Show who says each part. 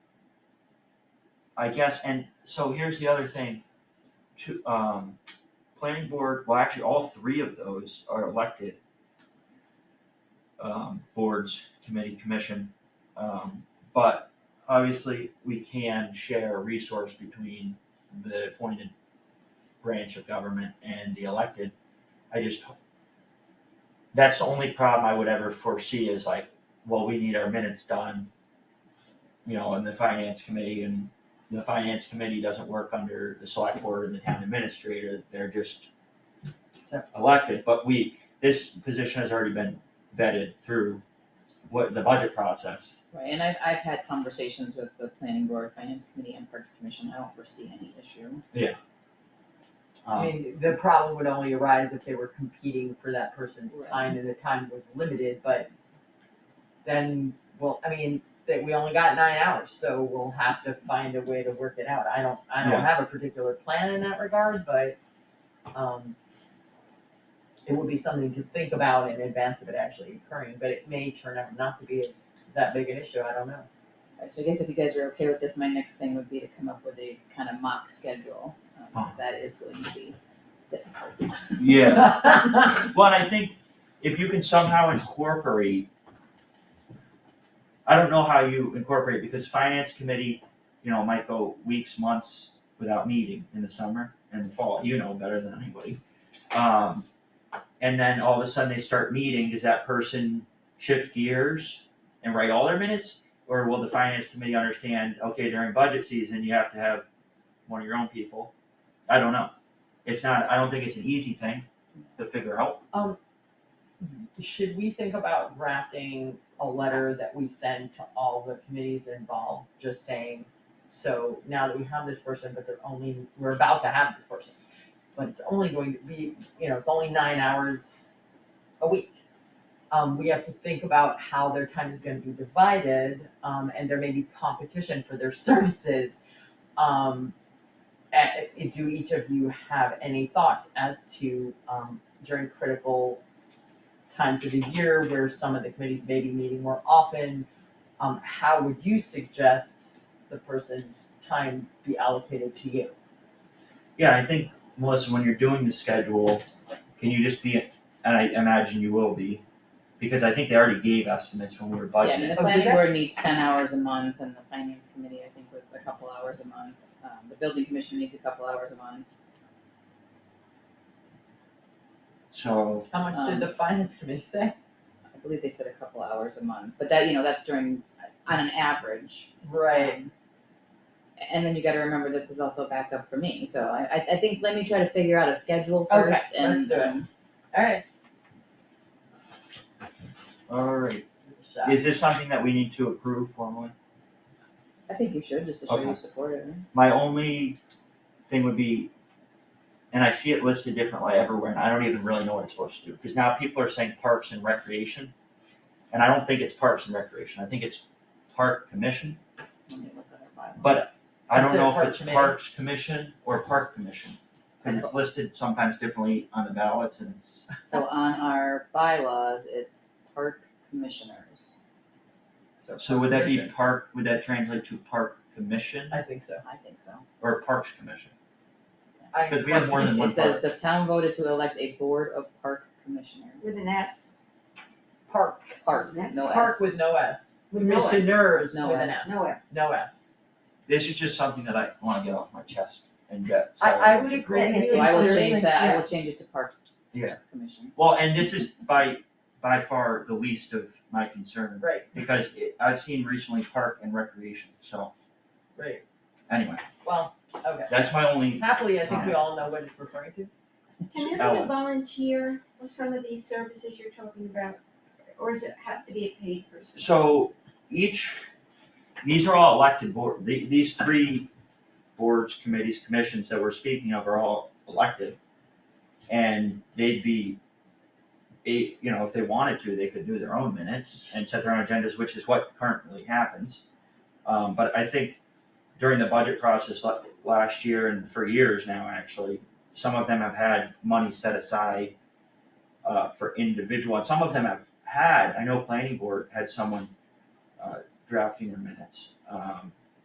Speaker 1: I guess, and so here's the other thing, to, um, planning board, well, actually, all three of those are elected. Um, boards, committee, commission, um, but obviously, we can share a resource between the appointed branch of government and the elected. I just, that's the only problem I would ever foresee is like, well, we need our minutes done, you know, in the finance committee and the finance committee doesn't work under the select board and the town administrator, they're just elected, but we, this position has already been vetted through what, the budget process.
Speaker 2: Right, and I've, I've had conversations with the planning board, finance committee, and parks commission, I don't foresee any issue.
Speaker 3: I
Speaker 1: Um,
Speaker 3: mean, the problem would only arise if they were competing for that person's
Speaker 2: Right.
Speaker 3: time and the time was limited, but then, well, I mean, that we only got nine hours, so we'll have to find a way to work it out. I don't, I
Speaker 1: Yeah.
Speaker 3: don't have a particular plan in that regard, but, um, it would be something to think about in advance of it actually occurring, but it may turn out not to be as, that big an issue, I don't know.
Speaker 2: Alright, so I guess if you guys are okay with this, my next thing would be to come up with a kind of mock schedule, um, 'cause that is going to be difficult.
Speaker 1: Yeah, But I think if you can somehow incorporate, I don't know how you incorporate, because finance committee, you know, might go weeks, months without meeting in the summer and the fall, you know better than anybody. Um, and then all of a sudden they start meeting, does that person shift gears and write all their minutes? Or will the finance committee understand, okay, during budget season, you have to have one of your own people? I don't know. It's not, I don't think it's an easy thing to figure out.
Speaker 3: Should we think about drafting a letter that we send to all the committees involved, just saying, so now that we have this person, but they're only, we're about to have this person, but it's only going to be, you know, it's only nine hours a week. Um, we have to think about how their time is gonna be divided, um, and there may be competition for their services. Um, a- do each of you have any thoughts as to, um, during critical times of the year where some of the committees may be meeting more often. Um, how would you suggest the person's time be allocated to you?
Speaker 1: Yeah, I think, Melissa, when you're doing the schedule, can you just be, and I imagine you will be, because I think they already gave estimates when we were
Speaker 2: Yeah, I mean,
Speaker 1: budgeting.
Speaker 2: the
Speaker 3: Oh,
Speaker 2: planning
Speaker 3: did they?
Speaker 2: board needs ten hours a month, and the finance committee, I think, was a couple hours a month, um, the building commission needs a couple hours a month.
Speaker 1: So,
Speaker 3: How much did the finance committee say?
Speaker 2: I believe they said a couple hours a month, but that, you know, that's during, uh, on an average, Um, And then you gotta remember, this is also backup for me, so I, I, I think, let me try to figure out a schedule
Speaker 3: Okay,
Speaker 2: first and.
Speaker 3: let's do it.
Speaker 2: um,
Speaker 3: Alright.
Speaker 1: alright, is this something that we need to approve formally?
Speaker 2: I think you should, just to show you
Speaker 1: Okay.
Speaker 2: support it. right?
Speaker 1: My only thing would be, and I see it listed differently everywhere, and I don't even really know what it's supposed to do, because now people are saying parks and recreation. And I don't think it's parks and recreation, I think it's park commission,
Speaker 2: Let me look at our bylaws.
Speaker 1: but I don't
Speaker 3: Instead of
Speaker 1: know if
Speaker 3: parks
Speaker 1: it's
Speaker 3: committee.
Speaker 1: parks commission or park commission. Cause it's listed sometimes differently on the ballots and it's.
Speaker 2: So on our bylaws, it's park commissioners,
Speaker 1: So would that be park, would that translate to park commission
Speaker 3: I think so.
Speaker 2: I think so.
Speaker 1: or parks commission?
Speaker 3: I-
Speaker 1: 'Cause we have more than
Speaker 2: It
Speaker 1: one
Speaker 2: says
Speaker 1: park.
Speaker 2: the town voted to elect a board of park commissioners.
Speaker 4: With an S,
Speaker 3: Park.
Speaker 2: Park,
Speaker 4: That's
Speaker 2: no S.
Speaker 3: Park with no S.
Speaker 4: with no S,
Speaker 3: Commissioners
Speaker 2: No
Speaker 3: with an
Speaker 2: S.
Speaker 3: S.
Speaker 4: no S.
Speaker 3: No S.
Speaker 1: This is just something that I wanna get off my chest and get.
Speaker 3: I-
Speaker 1: settled.
Speaker 3: I would agree.
Speaker 4: And it's
Speaker 2: So I will
Speaker 4: clear.
Speaker 2: change that, I will change it to park
Speaker 1: Yeah.
Speaker 2: commission.
Speaker 1: Well, and this is by, by far the least of my concern,
Speaker 3: Right,
Speaker 1: because it- I've seen recently park and recreation, so
Speaker 3: right.
Speaker 1: anyway,
Speaker 3: Well, okay.
Speaker 1: that's my only,
Speaker 3: Happily, I think we all know what it's referring to.
Speaker 4: Can everyone
Speaker 1: Ellen.
Speaker 4: volunteer for some of these services you're talking about, or does it have to be a paid person?
Speaker 1: so each, these are all elected board, the, these three boards, committees, commissions that we're speaking of are all elected. And they'd be, a, you know, if they wanted to, they could do their own minutes and set their own agendas, which is what currently happens. Um, but I think during the budget process la- last year and for years now, actually, some of them have had money set aside uh, for individual, and some of them have had, I know planning board had someone uh, drafting their minutes. Um,